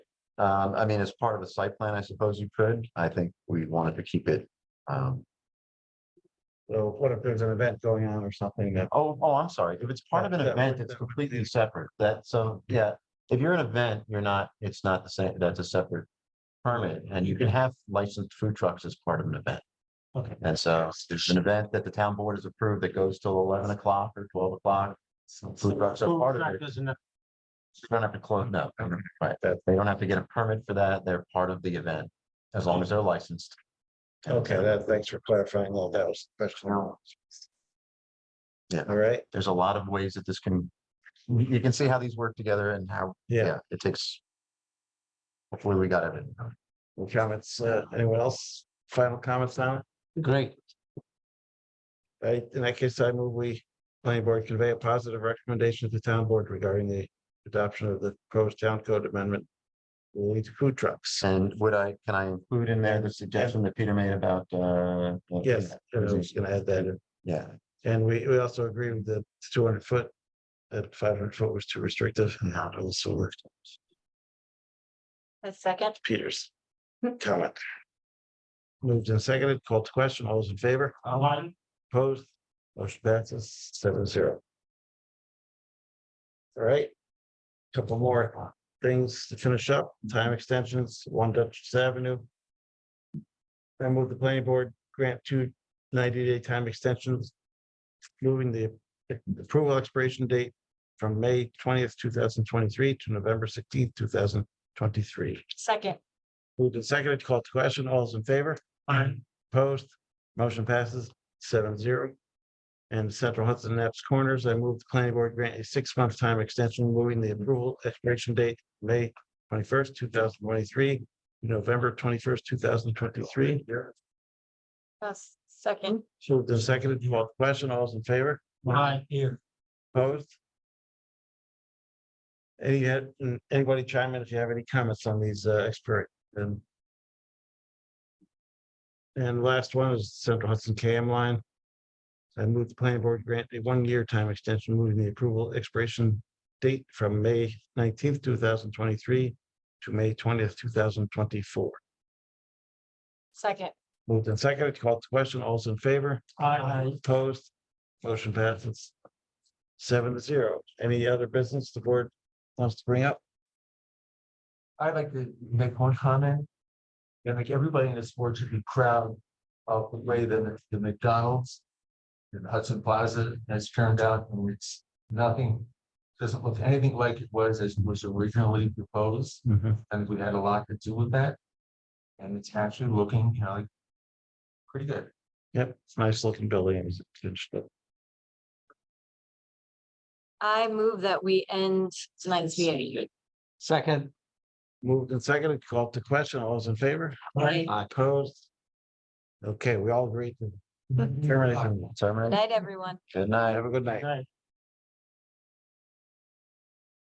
Um, I mean, as part of a site plan, I suppose you could. I think we wanted to keep it. Um, So what if there's an event going on or something that? oh, oh, I'm sorry. If it's part of an That- that event, would- it's that would completely be- separate. That, so, yeah. If you're an event, you're not, it's not the same, that's a separate permit and you can have licensed food trucks as part of an event. Okay. And so if there's an event that the town board has approved that goes till eleven o'clock or twelve o'clock. Food trucks are part of it. You don't have to close, no, right. They don't have to get a permit for that. They're part of the event as long as they're licensed. And Okay, so- that, thanks for clarifying all that was special. Yeah. All right, there's a lot of ways that this can, you can see how these work together and how, yeah, yeah, it takes. Hopefully we got it. Any comments, uh, anyone else, final comments on it? Great. All right, in that case, I move we, planning board convey a positive recommendation to the town board regarding the adoption of the proposed town code amendment. relating to food trucks. And would I, can I include in there the suggestion that Peter made about, uh? the- Yes, I was gonna add that in. Yeah, And we, we also agree with the two hundred foot. That five hundred foot was too restrictive and that also worked. A second, Hmm. Peters. Comment. Moved and seconded, called to question, all those in favor? Aye. Opposed, motion passes seven zero. All right. Couple more things to finish up, time extensions, one Dutchess Avenue. I move the planning board grant two 90 day time extensions. Moving the approval expiration date from May twentieth, two thousand twenty-three to November sixteenth, two thousand twenty-three. second, Moved and seconded, called to question, all those in favor? Aye. Opposed, motion passes seven zero. And Central Hudson Naps Corners, I move the planning board grant a six-month time extension, moving the approval expiration date, May twenty-first, two thousand twenty-three, November twenty-first, two thousand twenty-three. a second, Moved and seconded, called to question, all those in favor? Aye, here. Opposed? Any, mm, anybody chime in if you have any comments on these uh, expert and. And last one is Central Hudson KM line. I move the planning board grant a one-year time extension, moving the approval expiration date from May nineteenth, two thousand twenty-three to May twentieth, two thousand twenty-four. second, Moved and seconded, called to question, all's in favor? Aye. Opposed, motion passes. Seven to zero. Any other business the board wants to bring up? I'd like to make one comment. And like everybody in this board should be proud of the way that the McDonald's in Hudson Plaza has turned out, and it's nothing, doesn't look anything like it was as was originally proposed, and we had a lot to do with that. And it's actually looking, you know, like pretty good. Yep, it's a nice looking building. It's- it's- but I move that we end tonight's meeting. Second. Moved and seconded, called to question. All those in favor? Aye. Opposed? Okay, we all agree to terminate. the meeting. Terminate. Night, everyone. Good night. Have a good night.